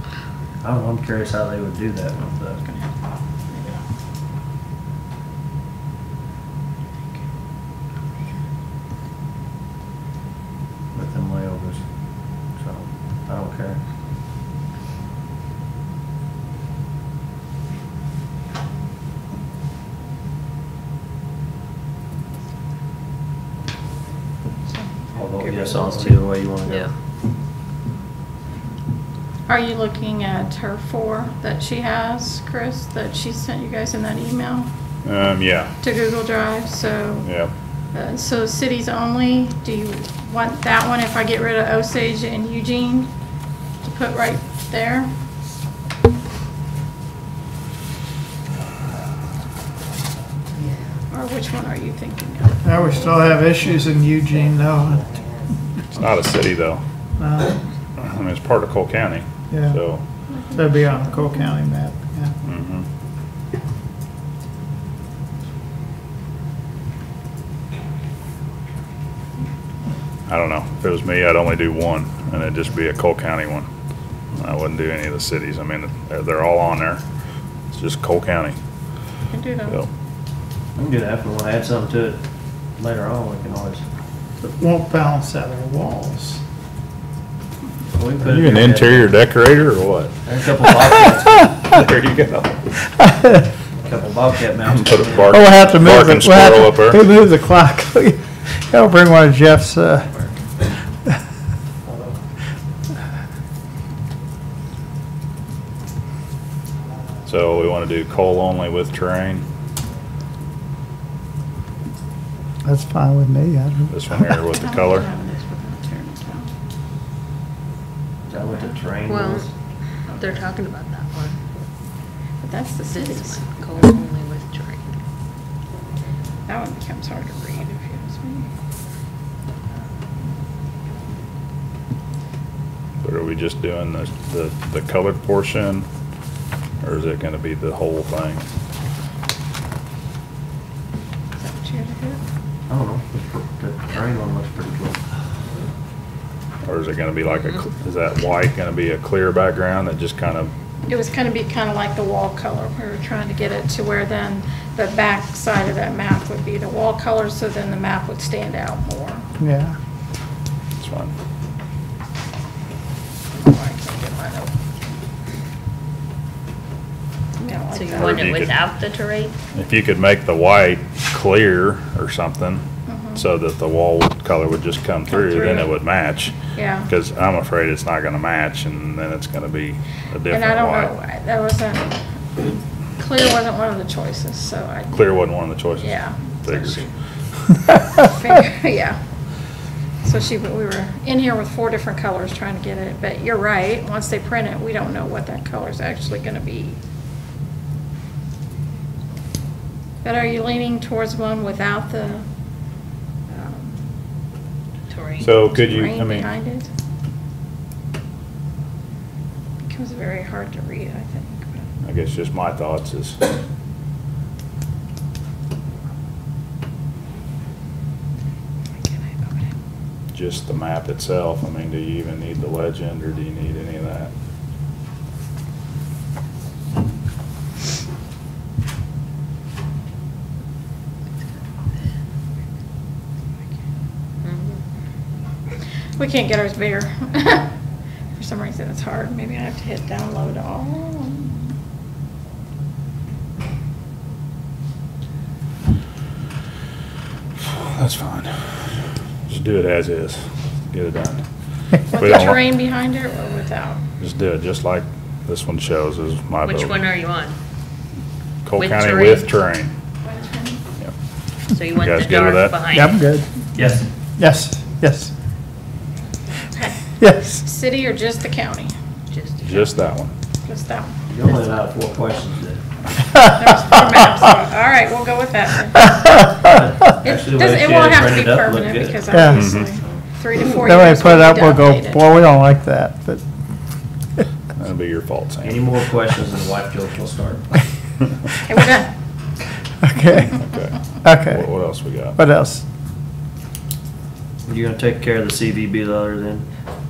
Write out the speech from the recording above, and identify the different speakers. Speaker 1: I don't know, Oh, I'm curious how they would do that with the, with them layovers. So, I don't care. Although, yes, I'll see the way you wanna go.
Speaker 2: Yeah.
Speaker 3: Are you looking at her four that she has, Chris, that she sent you guys in that email
Speaker 4: Um, yeah,
Speaker 3: to Google Drive? So,
Speaker 4: yeah.
Speaker 3: uh, so cities only, do you want that one if I get rid of Osage and Eugene to put right there? Or which one are you thinking of?
Speaker 5: Now we still have issues in Eugene though.
Speaker 4: It's not a city though.
Speaker 5: Uh,
Speaker 4: I mean, it's part of Cole County,
Speaker 5: Yeah.
Speaker 4: so.
Speaker 5: That'd be on the Cole County map, yeah.
Speaker 4: mhm. I don't know. If it was me, I'd only do one and it'd just be a Cole County one. I wouldn't do any of the cities. I mean, they're, they're all on there. It's just Cole County,
Speaker 3: You Can do
Speaker 4: so.
Speaker 3: those.
Speaker 1: I'm good after, wanna add something to it later on, we can always.
Speaker 5: It won't balance out our walls.
Speaker 1: we can put
Speaker 4: Are
Speaker 1: it
Speaker 4: you an
Speaker 1: there.
Speaker 4: interior decorator or
Speaker 1: There's a couple bobcat,
Speaker 4: what? There you go.
Speaker 1: couple bobcat mounts.
Speaker 4: Put a bar-
Speaker 5: Oh, we'll have to move
Speaker 4: Barking
Speaker 5: it, we'll have
Speaker 4: squirrel up there.
Speaker 5: to, we move the clock. I'll bring one of Jeff's, uh,
Speaker 4: So we want to do coal only with terrain.
Speaker 5: that's fine with me. I don't-
Speaker 4: This one here with the color.
Speaker 1: Is that what the terrain
Speaker 2: Well,
Speaker 1: was?
Speaker 2: they're talking about that one.
Speaker 3: But that's the
Speaker 2: This
Speaker 3: cities.
Speaker 2: is coal only with terrain.
Speaker 3: That one becomes hard to read if you ask me.
Speaker 4: But are we just doing the, the, the colored portion? Or is it gonna be the whole thing?
Speaker 3: Is that what you had to do?
Speaker 1: I don't know, the pr- the terrain one looks pretty cool.
Speaker 4: Or is it gonna be like a, cl- is that white gonna be a clear background that just kind of,
Speaker 3: It was gonna be kinda like the wall color. We were trying to get it to where then the back side of that map would be the wall color, so then the map would stand out more.
Speaker 5: Yeah,
Speaker 4: it's fine.
Speaker 3: I can't get mine open. Yeah, I
Speaker 2: So
Speaker 3: like
Speaker 2: you
Speaker 3: that.
Speaker 2: want
Speaker 4: Or
Speaker 2: it
Speaker 4: you could-
Speaker 2: without the terrain?
Speaker 4: If you could make the white clear or something, so that the wall color would just come through, then
Speaker 3: Mm-hmm.
Speaker 4: it
Speaker 3: through.
Speaker 4: would match.
Speaker 3: Yeah.
Speaker 4: Cause I'm afraid it's not gonna match and then it's gonna be a different
Speaker 3: And I don't know, I-
Speaker 4: white.
Speaker 3: that wasn't, clear wasn't one of the choices, so I,
Speaker 4: Clear wasn't one of the choices.
Speaker 3: Yeah.
Speaker 4: Figures.
Speaker 3: yeah. So she, we were in here with four different colors trying to get it, but you're right, once they print it, we don't know what that color's actually gonna be. But are you leaning towards one without the, um,
Speaker 2: Terrain.
Speaker 4: So could you, I
Speaker 3: terrain
Speaker 4: mean.
Speaker 3: behind it? Becomes very hard to read, I think.
Speaker 4: I guess just my thoughts is,
Speaker 3: Can I open it?
Speaker 4: just the map itself, I mean, do you even need the legend, or do you need any of that?
Speaker 2: Mhm.
Speaker 3: We can't get ours bigger. For some reason, it's hard. Maybe I have to hit download all.
Speaker 4: That's fine. Just do it as is, get it done.
Speaker 3: With
Speaker 4: We
Speaker 3: the
Speaker 4: don't wa-
Speaker 3: terrain behind it or without?
Speaker 4: Just do it, just like this one shows is my vote.
Speaker 2: Which one are you on?
Speaker 4: Cole
Speaker 2: with
Speaker 4: County
Speaker 2: terrain?
Speaker 4: with terrain. Yep.
Speaker 2: So you want
Speaker 4: guys
Speaker 2: the
Speaker 4: good with
Speaker 2: dark
Speaker 4: that?
Speaker 2: behind?
Speaker 5: yeah, I'm good.
Speaker 1: Yes.
Speaker 5: Yes, yes, yes.
Speaker 3: City or just the county?
Speaker 2: Just. the
Speaker 4: Just that one.
Speaker 3: Just that one.
Speaker 1: You only allowed four questions then.
Speaker 3: There was four maps. All right, we'll go with that. then.
Speaker 1: Actually, the
Speaker 3: It doesn't,
Speaker 1: way
Speaker 3: it
Speaker 1: she
Speaker 3: won't
Speaker 1: had
Speaker 3: have to be
Speaker 1: printed up looked
Speaker 3: permanent
Speaker 1: good. Mm-hmm.
Speaker 3: because
Speaker 5: Yeah.
Speaker 3: obviously, three to four
Speaker 5: Then
Speaker 3: years
Speaker 5: we put it
Speaker 3: will
Speaker 5: up,
Speaker 3: be
Speaker 5: we'll go,
Speaker 3: updated.
Speaker 5: boy, we don't like that, but
Speaker 4: That'd be your fault,
Speaker 1: Any
Speaker 4: Sam.
Speaker 1: more questions and the wife jokes will start.
Speaker 3: Okay, we're done.
Speaker 5: Okay,
Speaker 4: Okay. uh, What
Speaker 5: okay.
Speaker 4: what else we got?
Speaker 5: What else?
Speaker 1: You're gonna take care of the CVB letter then?